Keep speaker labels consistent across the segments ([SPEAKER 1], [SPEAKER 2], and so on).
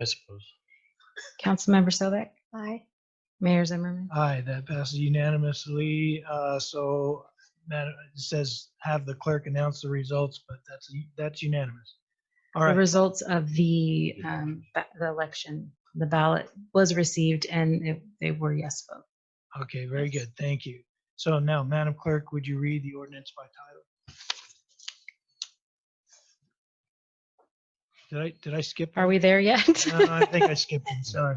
[SPEAKER 1] I suppose.
[SPEAKER 2] Councilmember Sobek,
[SPEAKER 3] Aye.
[SPEAKER 2] Mayor Zimmerman.
[SPEAKER 4] Aye, that passes unanimously. Uh, So Madam, it says have the clerk announce the results, but that's, that's unanimous. All
[SPEAKER 2] The
[SPEAKER 4] right,
[SPEAKER 2] results of the, um, ba- the election, the ballot was received and it- they were yes vote.
[SPEAKER 4] okay, very good. Thank you. So now, Madam Clerk, would you read the ordinance by title? Did I, did I skip?
[SPEAKER 2] Are we there yet?
[SPEAKER 4] No, I think I skipped it, sorry.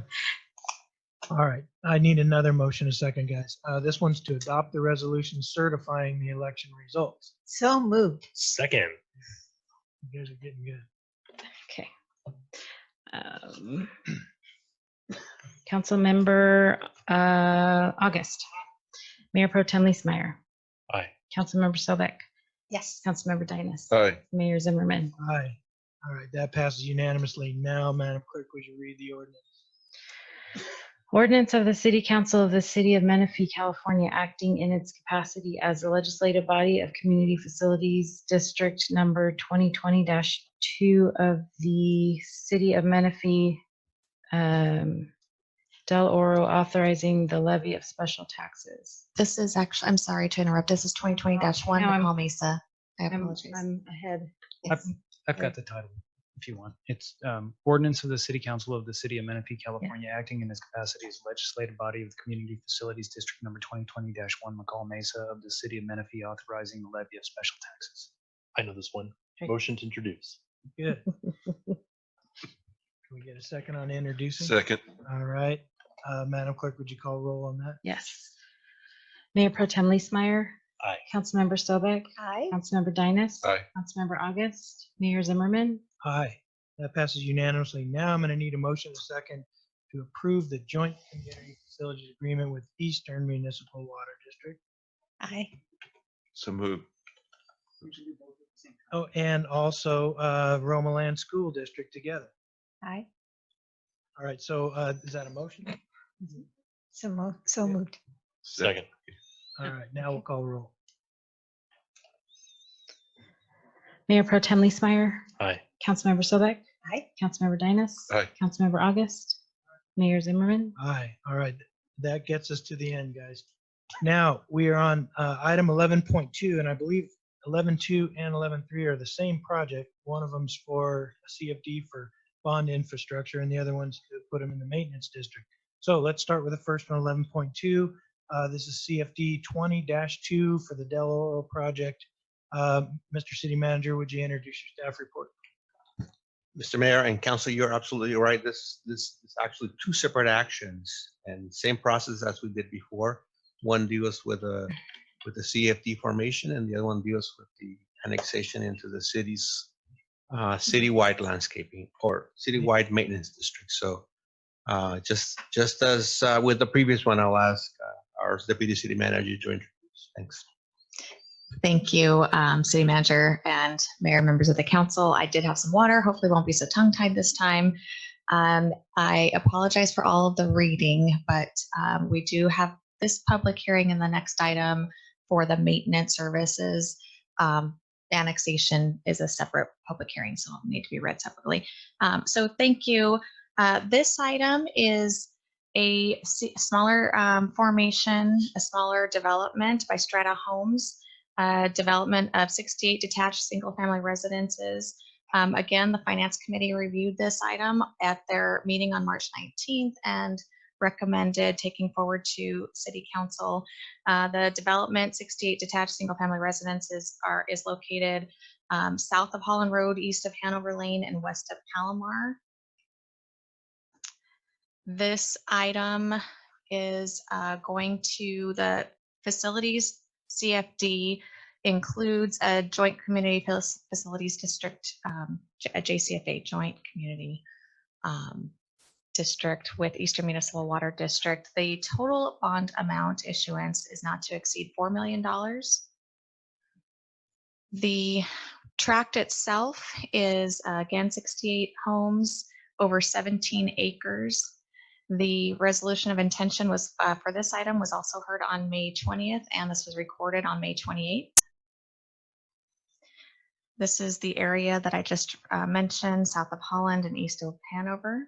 [SPEAKER 4] All right, I need another motion a second, guys. Uh, This one's to adopt the resolution certifying the election results.
[SPEAKER 3] So moved.
[SPEAKER 1] Second.
[SPEAKER 4] You guys are getting good.
[SPEAKER 2] Okay. Um, Councilmember, uh, August, Mayor Pro Tem Lisa Meyer,
[SPEAKER 1] Aye.
[SPEAKER 2] Councilmember Sobek,
[SPEAKER 3] Yes.
[SPEAKER 2] Councilmember Dynas,
[SPEAKER 5] Aye.
[SPEAKER 2] Mayor Zimmerman.
[SPEAKER 4] Aye. All right, that passes unanimously. Now, Madam Clerk, would you read the ordinance?
[SPEAKER 2] Ordinance of the City Council of the City of Menifee, California, acting in its capacity as the legislative body of Community Facilities District Number 2020-2 of the City of Menifee, um, Del Oro, authorizing the levy of special taxes.
[SPEAKER 3] This is actually, I'm sorry to interrupt. This is twenty twenty one,
[SPEAKER 2] No, I'm-
[SPEAKER 3] Nepal Mesa. I
[SPEAKER 2] I'm
[SPEAKER 3] apologize.
[SPEAKER 2] I'm ahead.
[SPEAKER 3] Yes.
[SPEAKER 6] I've got the title if you want. It's um, ordinance of the City Council of the City of Menifee, California, acting in its capacity as legislative body of the Community Facilities District Number 2020-1 McCall Mesa of the City of Menifee authorizing the levy of special taxes.
[SPEAKER 1] I know this one.
[SPEAKER 2] Right.
[SPEAKER 1] Motion to introduce.
[SPEAKER 4] Good. Can we get a second on introducing?
[SPEAKER 5] Second.
[SPEAKER 4] All right, Uh, Madam Clerk, would you call roll on that?
[SPEAKER 2] Yes. Mayor Pro Tem Lee Council
[SPEAKER 1] Aye.
[SPEAKER 2] Councilmember Sobek,
[SPEAKER 3] Aye.
[SPEAKER 2] Councilmember Dynas.
[SPEAKER 5] Aye.
[SPEAKER 2] Councilmember August, Mayor Zimmerman.
[SPEAKER 4] Aye. That passes unanimously. Now I'm going to need a motion a second to approve the joint community facilities agreement with Eastern Municipal Water District.
[SPEAKER 3] Aye.
[SPEAKER 5] So move.
[SPEAKER 4] Oh, and also uh, Roma Land School District together.
[SPEAKER 3] Aye.
[SPEAKER 4] All right, so uh, is that a motion?
[SPEAKER 3] So moved. So moved.
[SPEAKER 1] Second.
[SPEAKER 4] All right, now we'll call roll.
[SPEAKER 2] Mayor Pro Tem Lee
[SPEAKER 1] Aye.
[SPEAKER 2] Councilmember Sobek,
[SPEAKER 3] Aye.
[SPEAKER 2] Councilmember Dynas.
[SPEAKER 5] Aye.
[SPEAKER 2] Councilmember August, Mayor Zimmerman.
[SPEAKER 4] Aye, all right. That gets us to the end, guys. Now, we are on uh, item 11.2, and I believe 11.2 and 11.3 are the same project. One of them's for CFD for bond infrastructure, and the other one's to put them in the maintenance district. So let's start with the first one, 11.2. Uh, This is CFD 20-2 for the Del Oro project. Uh, Mr. City Manager, would you introduce your staff report?
[SPEAKER 7] Mr. Mayor and Council, you're absolutely right. This, this is actually two separate actions and same process as we did before. One deals with a, with the CFD formation and the other one deals with the annexation into the city's uh, citywide landscaping or citywide maintenance district. So uh, just, just as uh, with the previous one, I'll ask uh, our deputy city manager to introduce. Thanks.
[SPEAKER 3] Thank you, um, City Manager and Mayor, members of the council. I did have some water. Hopefully won't be so tongue-tied this time. Um, I apologize for all of the reading, but um, we do have this public hearing in the next item for the maintenance services. Um, Annexation is a separate public hearing, so it'll need to be read separately. Um, So thank you. Uh, This item is a s- smaller um, formation, a smaller development by Strata Homes uh, development of 68 detached single-family residences. Um, Again, the Finance Committee reviewed this item at their meeting on March 19th and recommended taking forward to City Council. Uh, The development, 68 detached single-family residences are, is located um, south of Holland Road, east of Hanover Lane, and west of Palomar. This item is uh, going to the Facilities CFD includes a joint community fac- facilities district, um, J- a JCFA joint community um, district with Eastern Municipal Water District. The total bond amount issuance is not to exceed $4 million. The tract itself is uh, again 68 homes over 17 acres. The resolution of intention was, uh, for this item was also heard on May 20th, and this was recorded on May 28th. This is the area that I just uh, mentioned, south of Holland and east of Hanover.